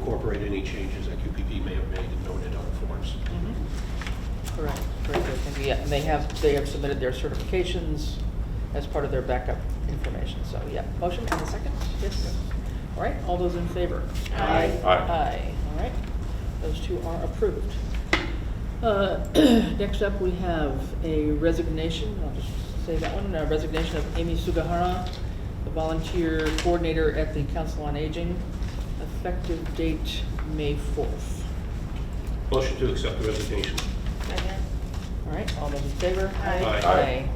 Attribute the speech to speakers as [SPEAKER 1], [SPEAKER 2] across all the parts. [SPEAKER 1] incorporate any changes that QPP may have made and noted on the forms.
[SPEAKER 2] Mm-hmm. Correct, correct. It can be- And they have, they have submitted their certifications as part of their backup information, so, yeah. Motion and a second? Yes. All right, all those in favor?
[SPEAKER 3] Aye. Aye.
[SPEAKER 2] Aye, all right. Those two are approved. Uh, Next up, we have a resignation, I'll just say that one, a resignation of Amy Sugahara, the volunteer coordinator at the Council on Aging, effective date May 4th.
[SPEAKER 1] Motion to accept the resignation.
[SPEAKER 3] Second.
[SPEAKER 2] All right, all those in favor?
[SPEAKER 3] Aye.
[SPEAKER 1] Aye.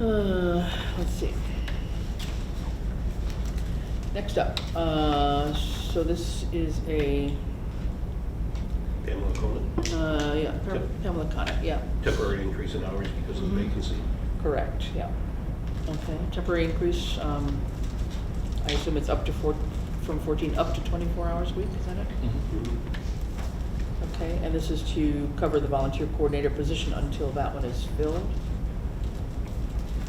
[SPEAKER 2] Aye. Uh, Let's see. Next up, uh, so this is a,
[SPEAKER 1] Pamela Coleman,
[SPEAKER 2] uh, yeah, Pam-
[SPEAKER 1] Yep.
[SPEAKER 2] Pamela Conic, yeah,
[SPEAKER 1] temporary increase in hours because of the
[SPEAKER 2] Mhm.
[SPEAKER 1] vacancy.
[SPEAKER 2] correct, yeah. Okay, temporary increase, um, I assume it's up to four, from 14 up to 24 hours a week, is that it? Mm-hmm.
[SPEAKER 1] Mhm.
[SPEAKER 2] Okay, and this is to cover the volunteer coordinator position until that one is filled.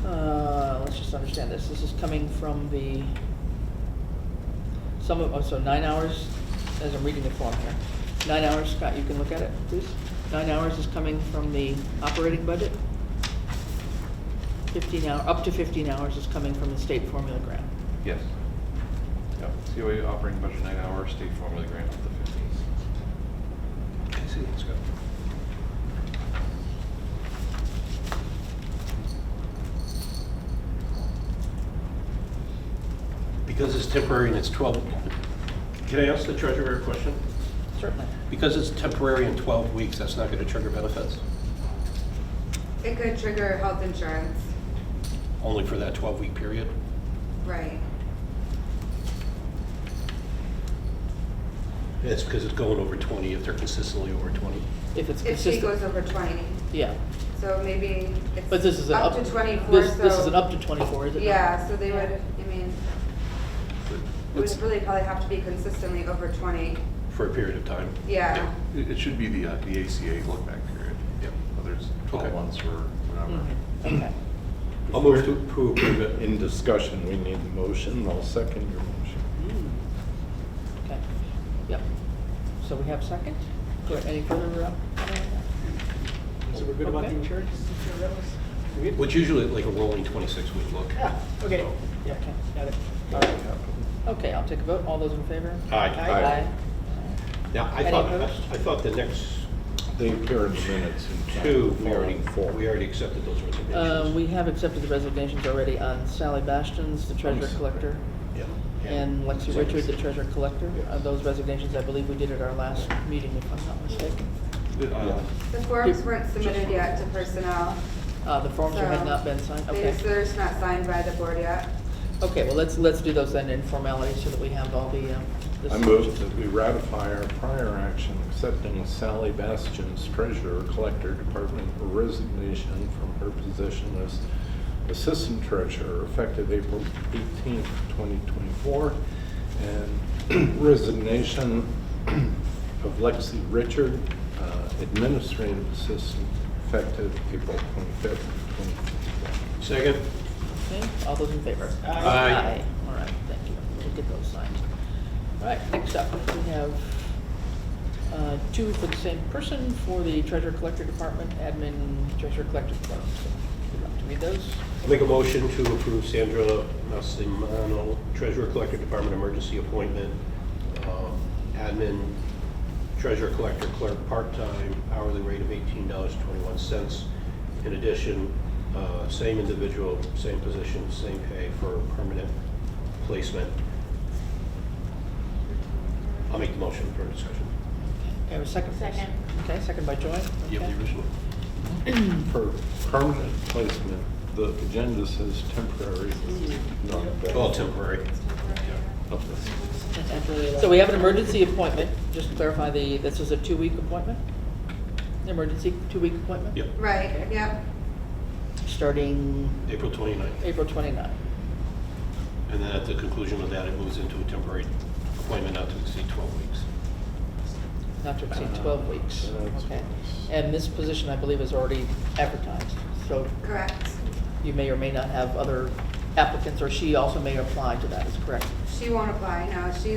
[SPEAKER 2] Uh, Let's just understand this. This is coming from the, some of, oh, so nine hours, as I'm reading the form here. Nine hours, Scott, you can look at it, please. Nine hours is coming from the operating budget. Fifteen hour, up to fifteen hours is coming from the state formula grant.
[SPEAKER 4] Yes. Yep, COA operating budget nine hour, state formula grant up to fifteen.
[SPEAKER 1] I see, it's got, because it's temporary and it's 12, can I ask the treasurer a question?
[SPEAKER 2] Certainly.
[SPEAKER 1] Because it's temporary and 12 weeks, that's not going to trigger benefits,
[SPEAKER 3] It could trigger health insurance,
[SPEAKER 1] only for that 12-week period?
[SPEAKER 3] right?
[SPEAKER 1] It's because it's going over 20, if they're consistently over 20.
[SPEAKER 2] If it's
[SPEAKER 3] If she goes
[SPEAKER 2] consistent,
[SPEAKER 3] over twenty,
[SPEAKER 2] yeah.
[SPEAKER 3] so maybe it's.
[SPEAKER 2] But this is an up.
[SPEAKER 3] Up to twenty-four, so.
[SPEAKER 2] This, this is an up to twenty-four, is it not?
[SPEAKER 3] Yeah, so they would, I mean, it would really probably have to be consistently over twenty,
[SPEAKER 1] For a period of time.
[SPEAKER 3] yeah.
[SPEAKER 4] It, it should be the, uh, the ACA look back period.
[SPEAKER 1] Yep.
[SPEAKER 4] Whether it's
[SPEAKER 1] Okay.
[SPEAKER 4] twelve months or whatever.
[SPEAKER 2] Mhm, Okay.
[SPEAKER 1] I'll move to to approve it.
[SPEAKER 5] In discussion, we need a motion, I'll second your motion.
[SPEAKER 2] Okay, yep. So we have second? Good, any further? uh,
[SPEAKER 6] So we're good about the
[SPEAKER 2] Okay.
[SPEAKER 6] insurance?
[SPEAKER 1] Which usually like a rolling 26-week look.
[SPEAKER 6] Yeah, okay.
[SPEAKER 2] Yeah, okay, got it.
[SPEAKER 5] That would happen.
[SPEAKER 2] Okay, I'll take a vote. All those in favor?
[SPEAKER 1] Aye.
[SPEAKER 2] Aye.
[SPEAKER 1] Now, I
[SPEAKER 2] Any
[SPEAKER 1] thought,
[SPEAKER 2] opposed?
[SPEAKER 1] I thought the next
[SPEAKER 5] They appear in minutes in time.
[SPEAKER 1] two, we already,
[SPEAKER 5] following forward.
[SPEAKER 1] we already accepted those
[SPEAKER 2] Uh,
[SPEAKER 1] resignations.
[SPEAKER 2] we have accepted the resignations already on Sally Bastions, the treasurer collector,
[SPEAKER 1] Yeah.
[SPEAKER 2] and Lexi Richard, the treasurer collector.
[SPEAKER 5] Yes.
[SPEAKER 2] Uh, Those resignations, I believe we did at our last meeting, if I'm not mistaken.
[SPEAKER 4] The, uh,
[SPEAKER 3] The forms weren't submitted yet to personnel.
[SPEAKER 2] Uh, the forms
[SPEAKER 3] so
[SPEAKER 2] had not been signed,
[SPEAKER 3] they
[SPEAKER 2] okay.
[SPEAKER 3] just- They're just not signed by the board yet.
[SPEAKER 2] Okay, well, let's, let's do those then in formality so that we have all the, um. the
[SPEAKER 5] I move that we ratify our prior action accepting Sally Bastion's treasurer collector department resignation from her position as assistant treasurer effective April 18th, 2024, and resignation of Lexi Richard, uh, administrative assistant, effective April 25th, 2024.
[SPEAKER 1] Second?
[SPEAKER 2] Okay, all those in favor?
[SPEAKER 6] Aye.
[SPEAKER 1] Aye.
[SPEAKER 2] All right, thank you. We'll get those signed. All right, next up, we have uh, two for the same person for the treasurer collector department, admin treasurer collector department. So, Would you like to read those?
[SPEAKER 1] I'll Make a motion to approve Sandra Massimano, Treasurer Collector Department Emergency Appointment, um, Admin, Treasurer Collector Clerk, part-time, hourly rate of $18.21. In addition, uh, same individual, same position, same pay for permanent placement. I'll make the motion for discussion.
[SPEAKER 2] Okay, have a second, please.
[SPEAKER 3] Second.
[SPEAKER 2] Okay, second by Joy.
[SPEAKER 1] Do you have
[SPEAKER 2] Okay.
[SPEAKER 1] the original?
[SPEAKER 5] For permanent placement, the agenda says temporary, not that.
[SPEAKER 1] Oh, temporary.
[SPEAKER 2] So we have an emergency appointment, just to clarify the, this is a two-week appointment? Emergency, two-week appointment?
[SPEAKER 1] Yep,
[SPEAKER 3] Right, yep.
[SPEAKER 2] Starting
[SPEAKER 1] April 29th.
[SPEAKER 2] April 29.
[SPEAKER 1] And then at the conclusion of that, it moves into a temporary appointment not to exceed 12 weeks.
[SPEAKER 2] not to exceed 12 weeks.
[SPEAKER 5] Uh, that's-
[SPEAKER 2] Okay. And this position, I believe, is already advertised, so
[SPEAKER 3] Correct.
[SPEAKER 2] you may or may not have other applicants, or she also may apply to that, is correct?
[SPEAKER 3] She won't apply, no, she